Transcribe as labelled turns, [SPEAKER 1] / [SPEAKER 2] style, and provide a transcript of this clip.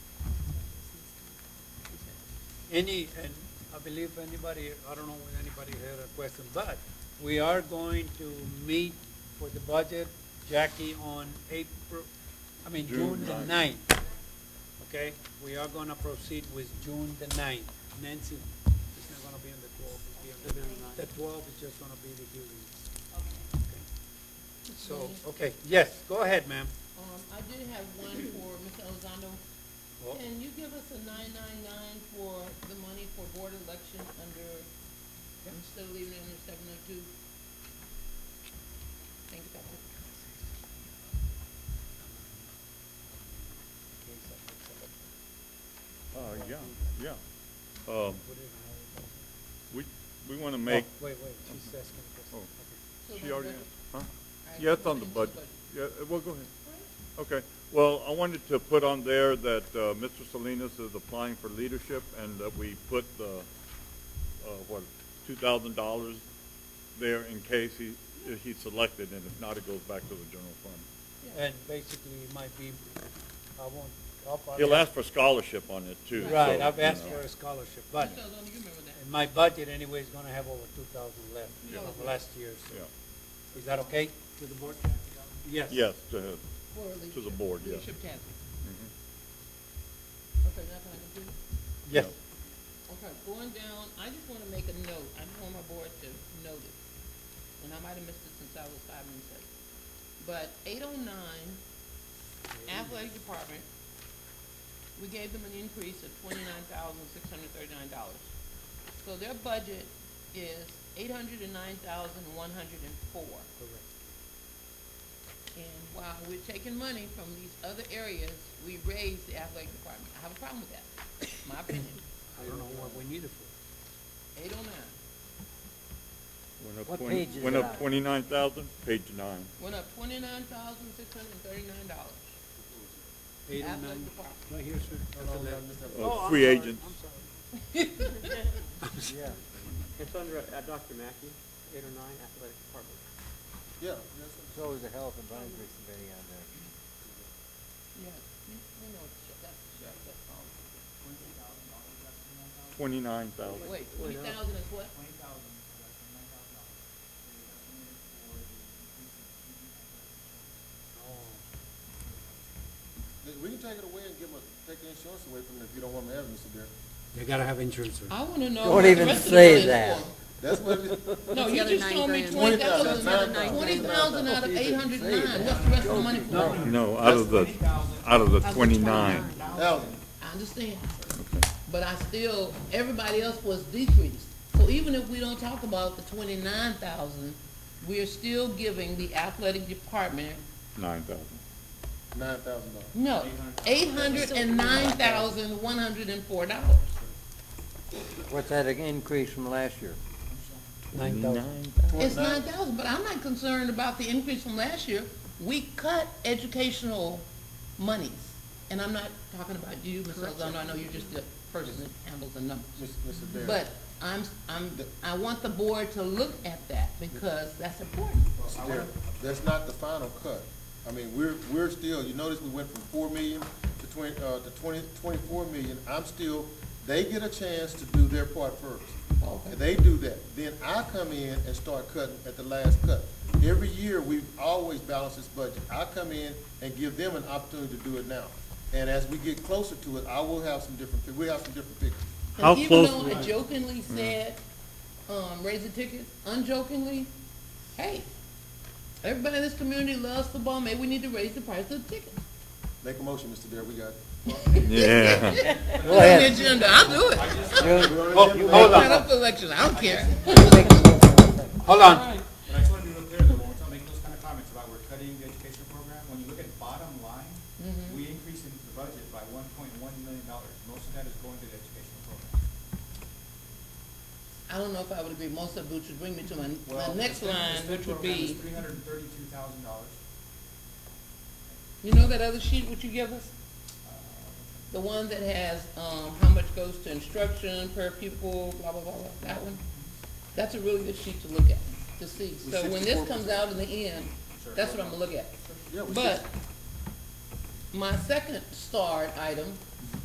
[SPEAKER 1] any, and I believe anybody, I don't know when anybody had a question, but we are going to meet for the budget, Jackie, on April, I mean, June
[SPEAKER 2] June
[SPEAKER 1] the ninth. Okay, we are gonna proceed with June the ninth. Nancy, it's not gonna be on the twelfth, it'll be on the ninth. The twelfth is just gonna be the hearing. Okay. So, okay, yes, go ahead, ma'am.
[SPEAKER 3] Um, I did have one for Mr. Elizondo.
[SPEAKER 1] Well-
[SPEAKER 3] Can you give us a nine-nine-nine for the money for board election under, I'm still leaving it under seven oh two? Think about it.
[SPEAKER 2] Uh, yeah, yeah. Um, we, we wanna make,
[SPEAKER 1] Oh, Wait, wait, she's asking a question.
[SPEAKER 2] Oh.
[SPEAKER 1] Okay.
[SPEAKER 3] So
[SPEAKER 2] she
[SPEAKER 3] the
[SPEAKER 2] already,
[SPEAKER 3] budget-
[SPEAKER 2] huh?
[SPEAKER 3] all right,
[SPEAKER 2] Yeah,
[SPEAKER 3] so
[SPEAKER 2] it's on the
[SPEAKER 3] we're
[SPEAKER 2] budget.
[SPEAKER 3] gonna do
[SPEAKER 2] Yeah, uh, well, go ahead. Okay, well, I wanted to put on there that, uh, Mr. Salinas is applying for leadership and that we put the, uh, what, two thousand dollars there in case he, if he's selected and if not, it goes back to the general fund.
[SPEAKER 3] Yeah.
[SPEAKER 1] And basically, it might be, I won't, I'll probably.
[SPEAKER 2] He'll ask for scholarship on it too.
[SPEAKER 1] Right,
[SPEAKER 2] so,
[SPEAKER 1] I've
[SPEAKER 2] you
[SPEAKER 1] asked
[SPEAKER 2] know.
[SPEAKER 1] for a scholarship, but
[SPEAKER 3] Mr. Elizondo, you remember that?
[SPEAKER 1] in my budget anyway is gonna have over two thousand left
[SPEAKER 3] Yeah.
[SPEAKER 1] from last year,
[SPEAKER 2] Yeah,
[SPEAKER 1] so. Is that okay to the board? Yes.
[SPEAKER 2] yes, to,
[SPEAKER 3] For
[SPEAKER 2] to the
[SPEAKER 3] leadership-
[SPEAKER 2] board, yes.
[SPEAKER 3] Leadership task.
[SPEAKER 1] Mm-hmm.
[SPEAKER 2] Mhm.
[SPEAKER 3] Okay, nothing I can do?
[SPEAKER 1] Yes.
[SPEAKER 3] Okay, going down, I just wanna make a note, I just want my board to notice, and I might have missed it since I was five minutes late. But eight oh nine, athletic department, we gave them an increase of twenty-nine thousand, six hundred thirty-nine dollars. So their budget is eight hundred and nine thousand, one hundred and four.
[SPEAKER 1] Correct.
[SPEAKER 3] And while we're taking money from these other areas, we raise the athletic department. I have a problem with that, my opinion,
[SPEAKER 1] I don't know what we need it for.
[SPEAKER 3] eight oh nine.
[SPEAKER 2] Went up
[SPEAKER 4] What
[SPEAKER 2] twenty-
[SPEAKER 4] page is
[SPEAKER 2] Went
[SPEAKER 4] it
[SPEAKER 2] up
[SPEAKER 4] on?
[SPEAKER 2] twenty-nine thousand, page nine.
[SPEAKER 3] went up twenty-nine thousand, six hundred and thirty-nine dollars.
[SPEAKER 1] Eight and
[SPEAKER 3] Athletic
[SPEAKER 1] nine,
[SPEAKER 3] department.
[SPEAKER 1] right here, sir. That's eleven.
[SPEAKER 2] Uh, free agents.
[SPEAKER 4] Yeah,
[SPEAKER 5] It's under uh, Dr. Mackey, eight or nine, athletic department.
[SPEAKER 6] Yeah,
[SPEAKER 4] so always the health advisory committee on there.
[SPEAKER 3] Yeah. You know, it's sh- that's, the sheriff, that's all.
[SPEAKER 2] Twenty-nine thousand.
[SPEAKER 3] Wait, three thousand is what?
[SPEAKER 7] twenty thousand, like nine thousand dollars. They estimated for the increase in student athletic insurance.
[SPEAKER 6] th- we can take it away and give 'em a- take the insurance away from them if you don't want them to have it, Mr. Dare.
[SPEAKER 1] They gotta have insurance, sir.
[SPEAKER 3] I wanna know.
[SPEAKER 4] Don't
[SPEAKER 3] what the
[SPEAKER 4] even
[SPEAKER 3] rest of the
[SPEAKER 4] say
[SPEAKER 3] money is
[SPEAKER 4] that.
[SPEAKER 3] for.
[SPEAKER 6] That's what it is.
[SPEAKER 3] No, you
[SPEAKER 8] other
[SPEAKER 3] just
[SPEAKER 8] nine
[SPEAKER 3] told me
[SPEAKER 8] grand.
[SPEAKER 3] twenty
[SPEAKER 6] That's another
[SPEAKER 3] thousand,
[SPEAKER 6] nine
[SPEAKER 3] twenty
[SPEAKER 6] grand.
[SPEAKER 3] thousand out of eight hundred and nine, what's the rest of the money for?
[SPEAKER 2] No, out of the, out of the twenty-nine.
[SPEAKER 6] Alan,
[SPEAKER 3] I understand, but I still, everybody else was decreased. So even if we don't talk about the twenty-nine thousand, we are still giving the athletic department
[SPEAKER 2] Nine thousand.
[SPEAKER 6] nine thousand dollars.
[SPEAKER 3] No, eight hundred and nine thousand, one hundred and four dollars.
[SPEAKER 4] What's that an increase from last year?
[SPEAKER 1] Nine thousand.
[SPEAKER 3] It's nine thousand, but I'm not concerned about the increase from last year. We cut educational monies, and I'm not talking about you, Ms. Elizondo, I know you're just the person that handles the numbers.
[SPEAKER 6] Mr. Dare.
[SPEAKER 3] But I'm, I'm, I want the board to look at that, because that's important.
[SPEAKER 6] Mr. Dare, that's not the final cut. I mean, we're, we're still, you notice we went from four million to twenty, uh, to twenty, twenty-four million. I'm still, they get a chance to do their part first.
[SPEAKER 3] Okay.
[SPEAKER 6] And they do that. Then I come in and start cutting at the last cut. Every year, we've always balanced this budget. I come in and give them an opportunity to do it now. And as we get closer to it, I will have some different, fi- we'll have some different pictures.
[SPEAKER 2] How
[SPEAKER 3] And even
[SPEAKER 2] close-
[SPEAKER 3] though I jokingly said, um, raise the tickets, unjokingly, hey, everybody in this community loves football, maybe we need to raise the price of the tickets.
[SPEAKER 6] Make a motion, Mr. Dare, we got.
[SPEAKER 2] Yeah.
[SPEAKER 4] Go ahead.
[SPEAKER 3] On the agenda, I'll do it.
[SPEAKER 4] You-
[SPEAKER 1] Hold
[SPEAKER 3] Set
[SPEAKER 1] on,
[SPEAKER 3] up for election, I don't care.
[SPEAKER 1] hold on.
[SPEAKER 7] But I just wanted to be real clear, though, when I'm making those kind of comments about we're cutting the educational program, when you look at bottom line, we increased in the budget by one point one million dollars. Most of that is going to the educational program.
[SPEAKER 3] I don't know if I would agree, most of which would bring me to my, my
[SPEAKER 7] Well,
[SPEAKER 3] next
[SPEAKER 7] the STEM- the
[SPEAKER 3] line,
[SPEAKER 7] STEM
[SPEAKER 3] which would
[SPEAKER 7] program
[SPEAKER 3] be,
[SPEAKER 7] is Three hundred and thirty-two thousand dollars.
[SPEAKER 3] you know that other sheet which you give us? The one that has, um, how much goes to instruction per pupil, blah, blah, blah, blah, that one? That's a really good sheet to look at, to see.
[SPEAKER 6] With
[SPEAKER 3] So when this
[SPEAKER 6] 64%.
[SPEAKER 3] comes out in the end,
[SPEAKER 7] Sure.
[SPEAKER 3] that's what I'm gonna look at.
[SPEAKER 6] Yeah, we
[SPEAKER 3] But, my second starred item